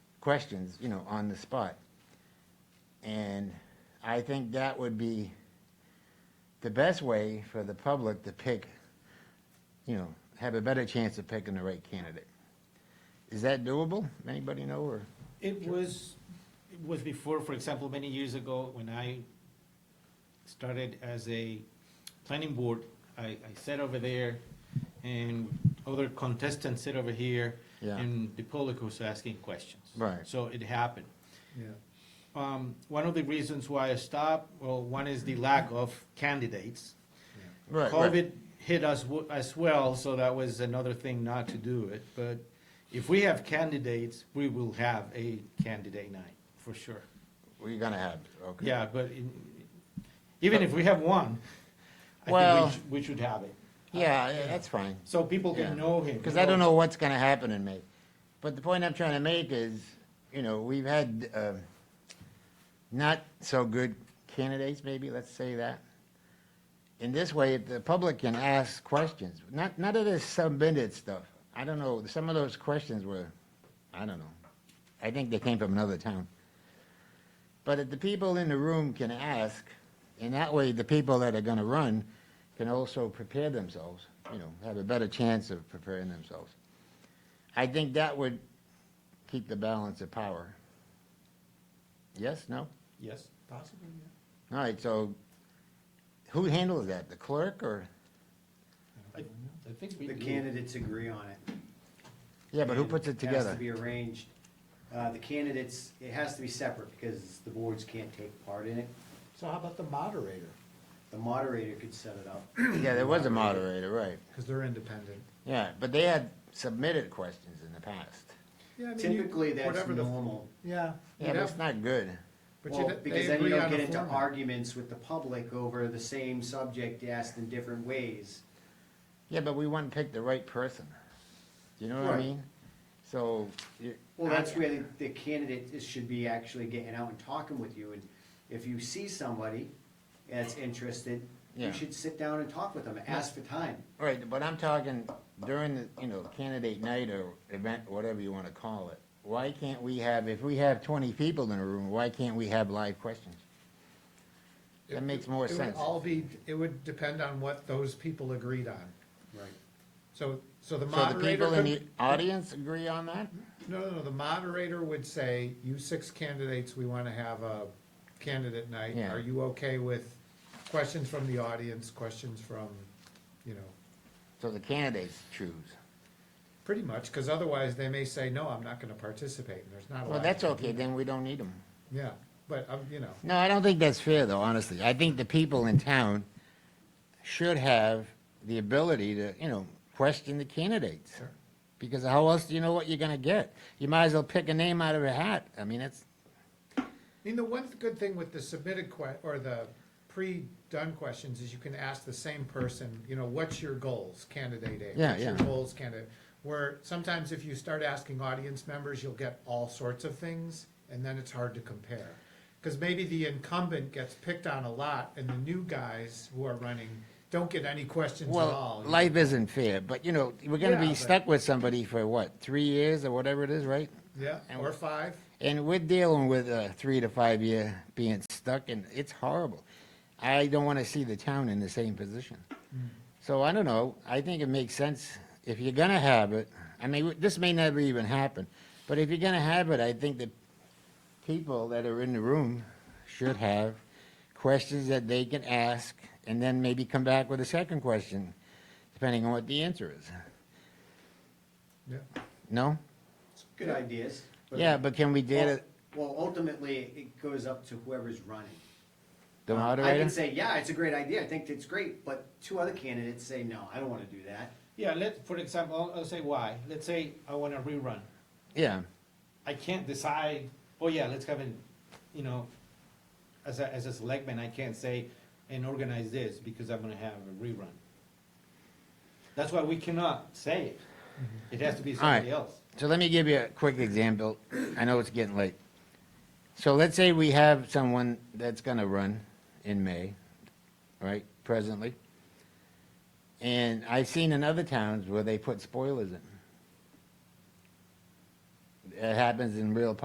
questions, you know, on the spot. And I think that would be the best way for the public to pick, you know, have a better chance of picking the right candidate. Is that doable? Anybody know, or? It was, it was before, for example, many years ago, when I started as a planning board, I, I sat over there, and other contestants sit over here, Yeah. and the public was asking questions. Right. So it happened. Yeah. Um, one of the reasons why I stopped, well, one is the lack of candidates. Right, right. COVID hit us w- as well, so that was another thing not to do it. But if we have candidates, we will have a candidate night, for sure. We're gonna have, okay. Yeah, but in- even if we have one, I Well- think we should, we should have it. Yeah, yeah, that's fine. So people can Yeah. know him. Because I don't know what's gonna happen in May. But the point I'm trying to make is, you know, we've had, um, not so good candidates, maybe, let's say that. In this way, the public can ask questions, not, not of this submitted stuff. I don't know, some of those questions were, I don't know. I think they came from another town. But if the people in the room can ask, and that way the people that are gonna run can also prepare themselves, you know, have a better chance of preparing themselves. I think that would keep the balance of power. Yes, no? Yes. Possibly, yeah. All right, so who handles that? The clerk or? I I think we The do. candidates agree on it. Yeah, but who And puts it It has together? to be arranged. Uh, the candidates, it has to be separate because the boards can't take part in it. So how about the moderator? The moderator could set it up. Yeah, there was a moderator, right. Because they're independent. Yeah, but they had submitted questions in the past. Yeah, I mean, you- Typically, that's whatever the- normal. Yeah. Yeah, but it's not good. But Well, you, because they then you agree don't on get a into format. arguments with the public over the same subject asked in different ways. Yeah, but we want to pick the right person. Do you know what I Right. mean? So. you- Well, that's where the- the candidate is- should be actually getting out and talking with you, and if you see somebody that's interested, Yeah. you should sit down and talk with them, ask for time. All right, but I'm talking during the, you know, candidate night or event, whatever you want to call it. Why can't we have, if we have twenty people in a room, why can't we have live questions? That makes more It would sense. all be, it would depend on what those people agreed on. Right. So, so So the the moderator people in the could, audience agree on that? no, no, no, the moderator would say, you six candidates, we want to have a candidate night. Yeah. Are you okay with questions from the audience, questions from, you know, So the candidates choose. Pretty much, because otherwise they may say, no, I'm not gonna participate, and there's not a lot. Well, that's you can okay, do. then we don't need them. Yeah, but, um, you know, No, I don't think that's fair, though, honestly. I think the people in town should have the ability to, you know, question the candidates. Sure. Because how else do you know what you're gonna get? You might as well pick a name out of a hat. I mean, it's, I mean, the one good thing with the submitted que, or the pre-done questions is you can ask the same person, you know, what's your goals, candidate A? Yeah, What's your yeah. goals, candidate, where sometimes if you start asking audience members, you'll get all sorts of things, and then it's hard to compare. Because maybe the incumbent gets picked on a lot, and the new guys who are running don't get any questions at all. well, life isn't fair, but, you know, we're gonna Yeah, be but- stuck with somebody for what, three years or whatever it is, right? Yeah, or five. And we're dealing with a three to five year being stuck, and it's horrible. I don't want to see the town in the same position. So I don't know. I think it makes sense if you're gonna have it. I mean, this may never even happen, but if you're gonna have it, I think the people that are in the room should have questions that they can ask, and then maybe come back with a second question, depending on what the answer is. Yeah. No? Good ideas. Yeah, but can we data Well, ultimately, it goes up to whoever's running. the I moderator? can say, yeah, it's a great idea, I think it's great, but two other candidates say, no, I don't wanna do that. Yeah, let, for example, I'll- I'll say why. Let's say I want a rerun. Yeah. I can't decide, oh yeah, let's have an, you know, as a, as a selectman, I can't say and organize this because I'm gonna have a rerun. That's why we cannot say it. It has to be All right. somebody else. So let me give you a quick example. I know it's getting late. So let's say we have someone that's gonna run in May, right, presently. And I've seen in other towns where they put spoilers in. It happens in real